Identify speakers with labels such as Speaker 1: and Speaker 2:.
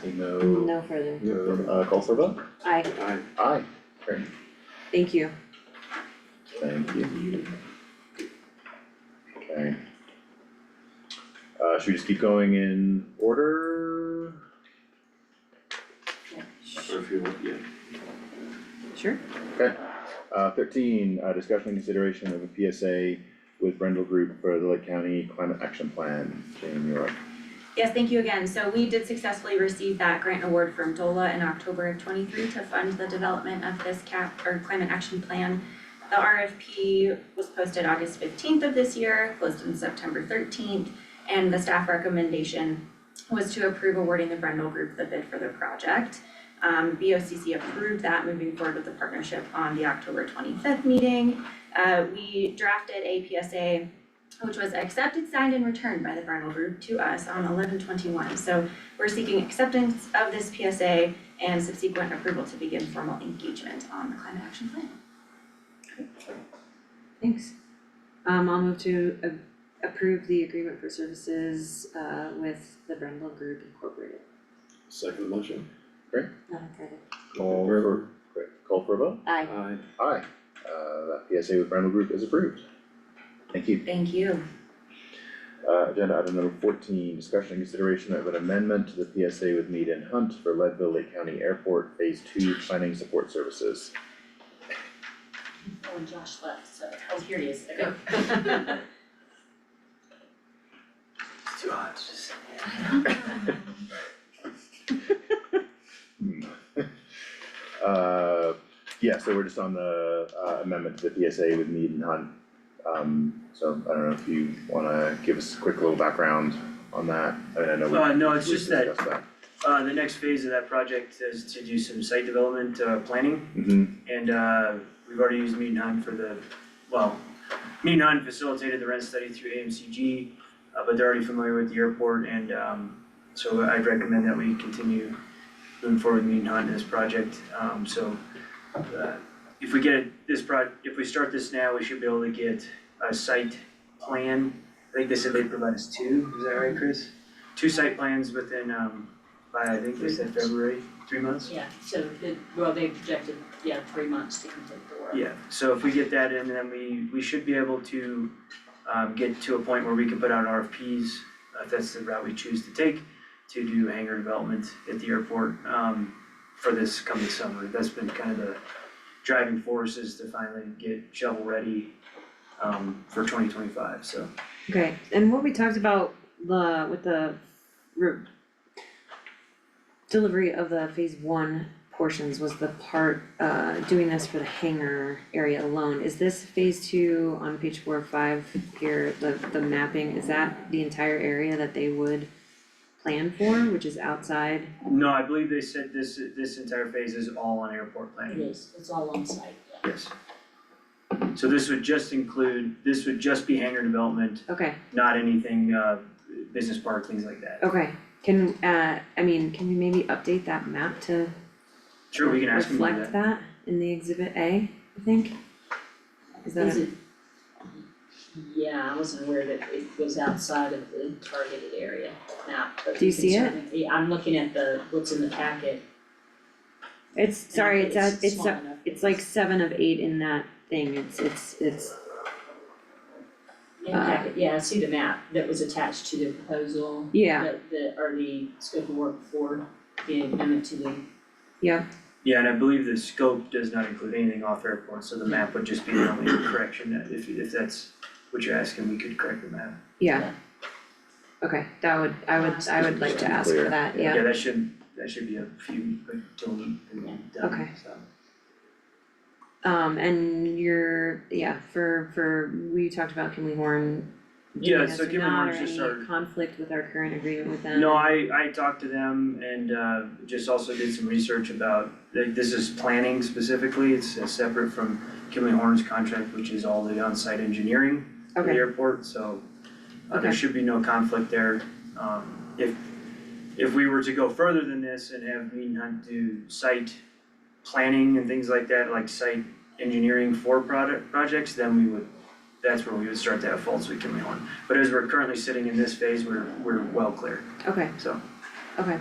Speaker 1: Seeing no,
Speaker 2: No further.
Speaker 1: no, uh, call for vote?
Speaker 2: I,
Speaker 3: Aye.
Speaker 1: Aye. Great,
Speaker 2: thank you.
Speaker 1: thank you. Okay. Uh, should we just keep going in order?
Speaker 3: Or if you, want, yeah.
Speaker 2: Sure.
Speaker 1: Okay, uh, thirteen, uh, discussion and consideration of a PSA with Brendel Group for the Lake County Climate Action Plan, Jane, you're up.
Speaker 4: Yes, thank you again. So we did successfully receive that grant award from DOLA in October of twenty-three to fund the development of this cap or climate action plan. The RFP was posted August fifteenth of this year, closed on September thirteenth, and the staff recommendation was to approve awarding the Brendel Group the bid for the project. Um, BOCC approved that moving forward with the partnership on the October twenty-fifth meeting. Uh, we drafted a PSA which was accepted, signed, and returned by the Brendel Group to us on eleven twenty-one. So we're seeking acceptance of this PSA and subsequent approval to begin formal engagement on the climate action plan.
Speaker 2: Thanks. Um, I'll move to a- approve the agreement for services, uh, with the Brendel Group Incorporated.
Speaker 3: Second motion.
Speaker 2: Not credit.
Speaker 1: Call for, great, call for a vote?
Speaker 2: I,
Speaker 3: Aye.
Speaker 1: Aye, uh, that PSA with Brendel Group is approved. Thank you.
Speaker 4: Thank you.
Speaker 1: Uh, agenda item number fourteen, discussion and consideration of an amendment to the PSA with Mead and Hunt for Leadville Lake County Airport Phase Two Planning Support Services.
Speaker 5: Oh, and Josh left, so, oh, here he is, okay.
Speaker 3: It's too hot to just.
Speaker 1: Hmm. Uh, yeah, so we're just on the uh, amendment to the PSA with Mead and Hunt. Um, so I don't know if you wanna give us a quick little background on that, I mean, I know we-
Speaker 6: Uh, no, it's
Speaker 1: we've
Speaker 6: just that-
Speaker 1: discussed
Speaker 6: Uh, the next phase of that project is to do some site development, uh, planning,
Speaker 1: Mhm,
Speaker 6: and, uh, we've already used Meet Nine for the, well, Meet Nine facilitated the rent study through AMCG, uh, but they're already familiar with the airport, and, um, so I'd recommend that we continue moving forward with Meet Nine in this project, um, so, uh, if we get this pro, if we start this now, we should be able to get a site plan, I think they said they provide us two, is that right, Chris? Two site plans within, um, by, I think they said February, three months?
Speaker 5: Yeah, so the, well, they projected, yeah, three months to complete the work.
Speaker 6: Yeah, so if we get that in, then we, we should be able to, um, get to a point where we can put out RFPs, if that's the route we choose to take, to do hangar development at the airport, um, for this coming summer. That's been kind of the driving force is to finally get shovel ready, um, for twenty twenty-five, so.
Speaker 2: okay, and what we talked about the, with the re- delivery of the phase one portions was the part, uh, doing this for the hangar area alone. Is this phase two on page four or five here, the, the mapping, is that the entire area that they would plan for, which is outside?
Speaker 6: No, I believe they said this, this entire phase is all on airport
Speaker 5: It
Speaker 6: planning.
Speaker 5: is, it's all on site, yeah.
Speaker 6: Yes. So this would just include, this would just be hangar development,
Speaker 2: Okay,
Speaker 6: not anything, uh, business park, things like that.
Speaker 2: Okay, can, uh, I mean, can we maybe update that map to
Speaker 6: Sure, we can ask them to do
Speaker 2: reflect
Speaker 6: that.
Speaker 2: that in the exhibit A, I think? Is that,
Speaker 5: Is
Speaker 2: a-
Speaker 5: it? Yeah, I wasn't aware that it was outside of the targeted area map, but
Speaker 2: Do you
Speaker 5: can
Speaker 2: see it?
Speaker 5: certainly- Yeah, I'm looking at the, what's in the packet.
Speaker 2: it's, sorry,
Speaker 5: and
Speaker 2: it's, a- it's,
Speaker 5: small
Speaker 2: a-
Speaker 5: enough.
Speaker 2: it's like seven of eight in that thing, it's, it's, it's,
Speaker 5: In the packet, yeah, I see the map that was attached to the proposal,
Speaker 2: yeah,
Speaker 5: that the, or the scope of work for the amendment to the,
Speaker 6: Yeah, and I believe the scope does not include anything off airport, so the map would just be the only correction that if if that's what you're asking, we could correct the map.
Speaker 2: yeah. Okay, that would, I would, I would like to ask for that, yeah,
Speaker 6: Yeah, that should, that should be a few, until we, done,
Speaker 2: Okay.
Speaker 6: so.
Speaker 2: um, and you're, yeah, for, for, we talked about Kimley Horn.
Speaker 6: Yeah,
Speaker 2: doing this
Speaker 6: so
Speaker 2: or
Speaker 6: Kimley
Speaker 2: not,
Speaker 6: Horn's just
Speaker 2: Or
Speaker 6: our-
Speaker 2: any conflict with our current agreement with them?
Speaker 6: No, I I talked to them and uh just also did some research about, like, this is planning specifically, it's uh, separate from Kimley Horn's contract, which is all the on-site engineering for the
Speaker 2: Okay.
Speaker 6: airport, so uh there
Speaker 2: Okay.
Speaker 6: should be no conflict there. Um if if we were to go further than this and have Mead Hunt do site planning and things like that, like site engineering for product projects, then we would, that's where we would start to have faults with Kimley Horn. But as we're currently sitting in this phase, we're we're well clear,
Speaker 2: Okay,
Speaker 6: so.
Speaker 2: okay,